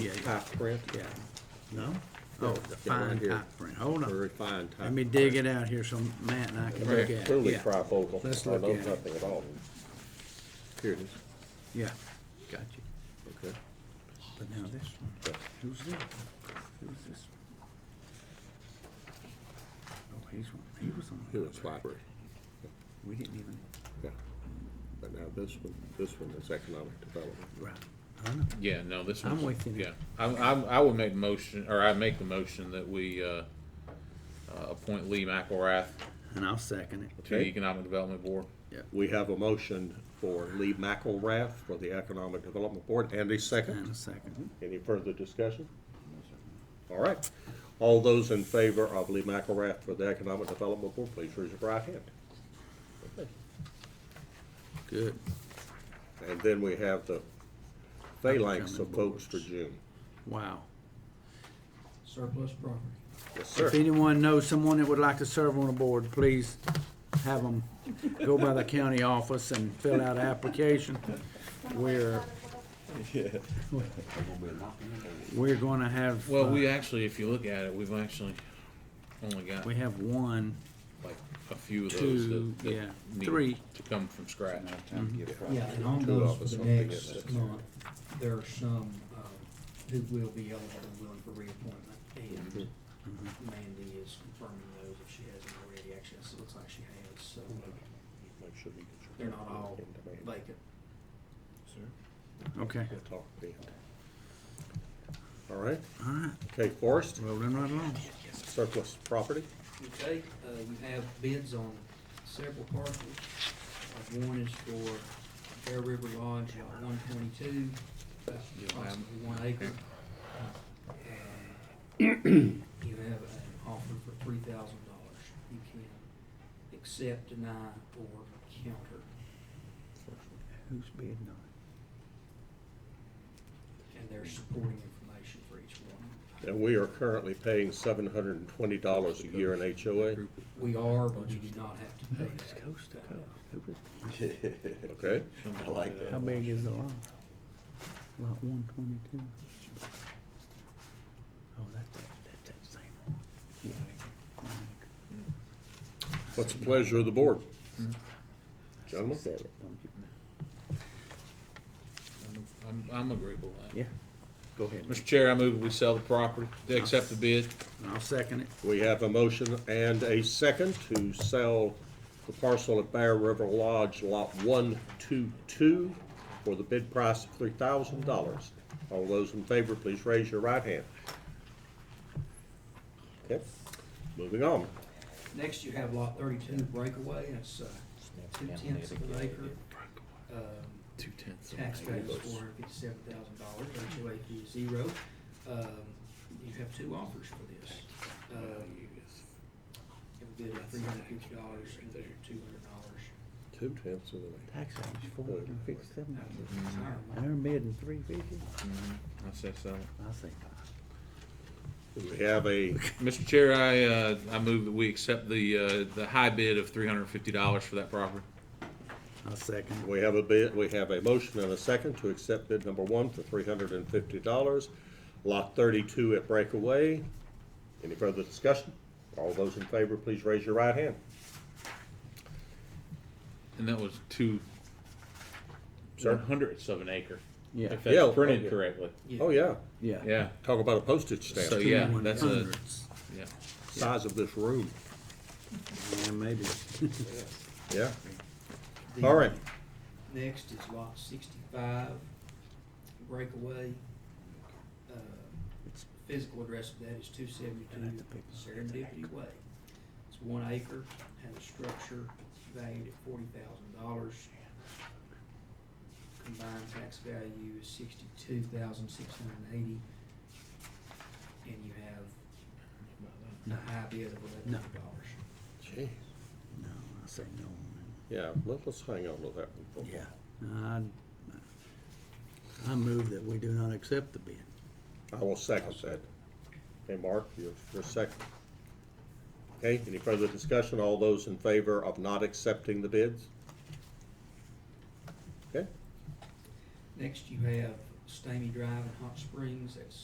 Yeah, top print, yeah. no? Yeah, Oh, yeah, the right fine here. top print, hold on. Very fine top. Let me dig it out here so Matt and I can look at it. Clearly Yeah, trifocal. Let's I look know at it. nothing at all. Here it is. Yeah, got you. Okay. But now this one, who's this? Who's this? Oh, he's one, he was on. the Here it's other. library. We didn't even, Yeah. But now this one, this one is economic development. right, I know. Yeah, no, this I'm one's. with you. Yeah, I'm, I'm, I would make motion, or I make the motion that we, uh, uh, appoint Lee McElrath And I'll second it. to the Okay. Economic Development Board. We have a motion for Lee McElrath for the Economic Development Board. Andy, And second. a second. Any further discussion? All right. All those in favor of Lee McElrath for the Economic Development Board, please raise your right hand. Good. And then we have the phalanx of votes for June. Wow. surplus property. Yes, sir. If anyone knows someone that would like to serve on a board, please have them go by the county office and fill out an application. We're, we're gonna have, Well, uh, we actually, if you look at it, we've actually only got uh, we have one, like a few of those two, that. that yeah, need three. To come from scratch. Yeah, and on Two those of for us the don't think next it's- month, there are some um, who will be eligible and willing for reappointment. And Mandy is confirming those if she hasn't already. Actually, it looks like she has, so Make sure you get your- they're not all vacant. okay, We'll talk to you. All right. all right, Okay, Forrest, rolling right along. surplus property. Okay, uh, you have bids on several parcels. Uh, One is for Bear River Lodge, lot one twenty-two, approximately one acre. Um, You have an offer for three thousand dollars. You can accept, deny, or counter. Who's bidding on And there's supporting information for each one. And we are currently paying seven hundred and twenty dollars a year in HOA, We are, but we do not have to pay that. Coast to coast. okay? I like How big is the lot? Lot one twenty-two. Oh, that's, that's that same one. Yeah. What's the pleasure of the board? Mm-hmm. Gentlemen? I'm, I'm agreeable with that. Yeah, go ahead. Mr. Chair, I move we sell the property, to accept the bid. I'll second it. We have a motion and a second to sell the parcel at Bear River Lodge, Lot one two two, for the bid price of three thousand dollars. All those in favor, please raise your right hand. Okay, moving on. Next, you have lot thirty-two breakaway, it's, uh, two tenths of an acre. Um, Two tenths. Tax base four hundred fifty-seven thousand dollars, HOA fee is zero. Um, you have two offers for this. Um, you have a bid of three hundred fifty dollars and bid of two hundred dollars. Two tenths of an acre. Tax range four hundred and fifty-seven. And Retirement. they're bidding three fifty? I said so. I say five. We have a, Mr. Chair, I, uh, I move that we accept the, uh, the high bid of three hundred and fifty dollars for that property. I'll second it. we have a bid, we have a motion and a second to accept bid number one for three hundred and fifty dollars. Lot thirty-two at Breakaway. Any further discussion? All those in favor, please raise your right hand. And that was two, Sir? one hundredths of an acre. Yeah. If Yeah. that's printed correctly. Oh, yeah. Yeah. Yeah, Talk about a postage So, stamp, yeah, that's a- yeah. size of this room, Yeah, maybe. yeah. The- All right, Next is lot sixty-five, breakaway. Uh, Physical address of that is two seventy-two Serendipity Way. It's one acre, has a structure valued at forty thousand dollars. Combined tax value is sixty-two thousand six hundred and eighty. And you have a high bid of eleven hundred dollars. Gee, No, I say no. on yeah, let, let's hang on to that one. for a that. moment. I, I move that we do not accept the bid. I will second that. Okay, Mark, you're, you're second. Okay, any further discussion? All those in favor of not accepting the bids? Okay, Next, you have Stamy Drive in Hot Springs, that's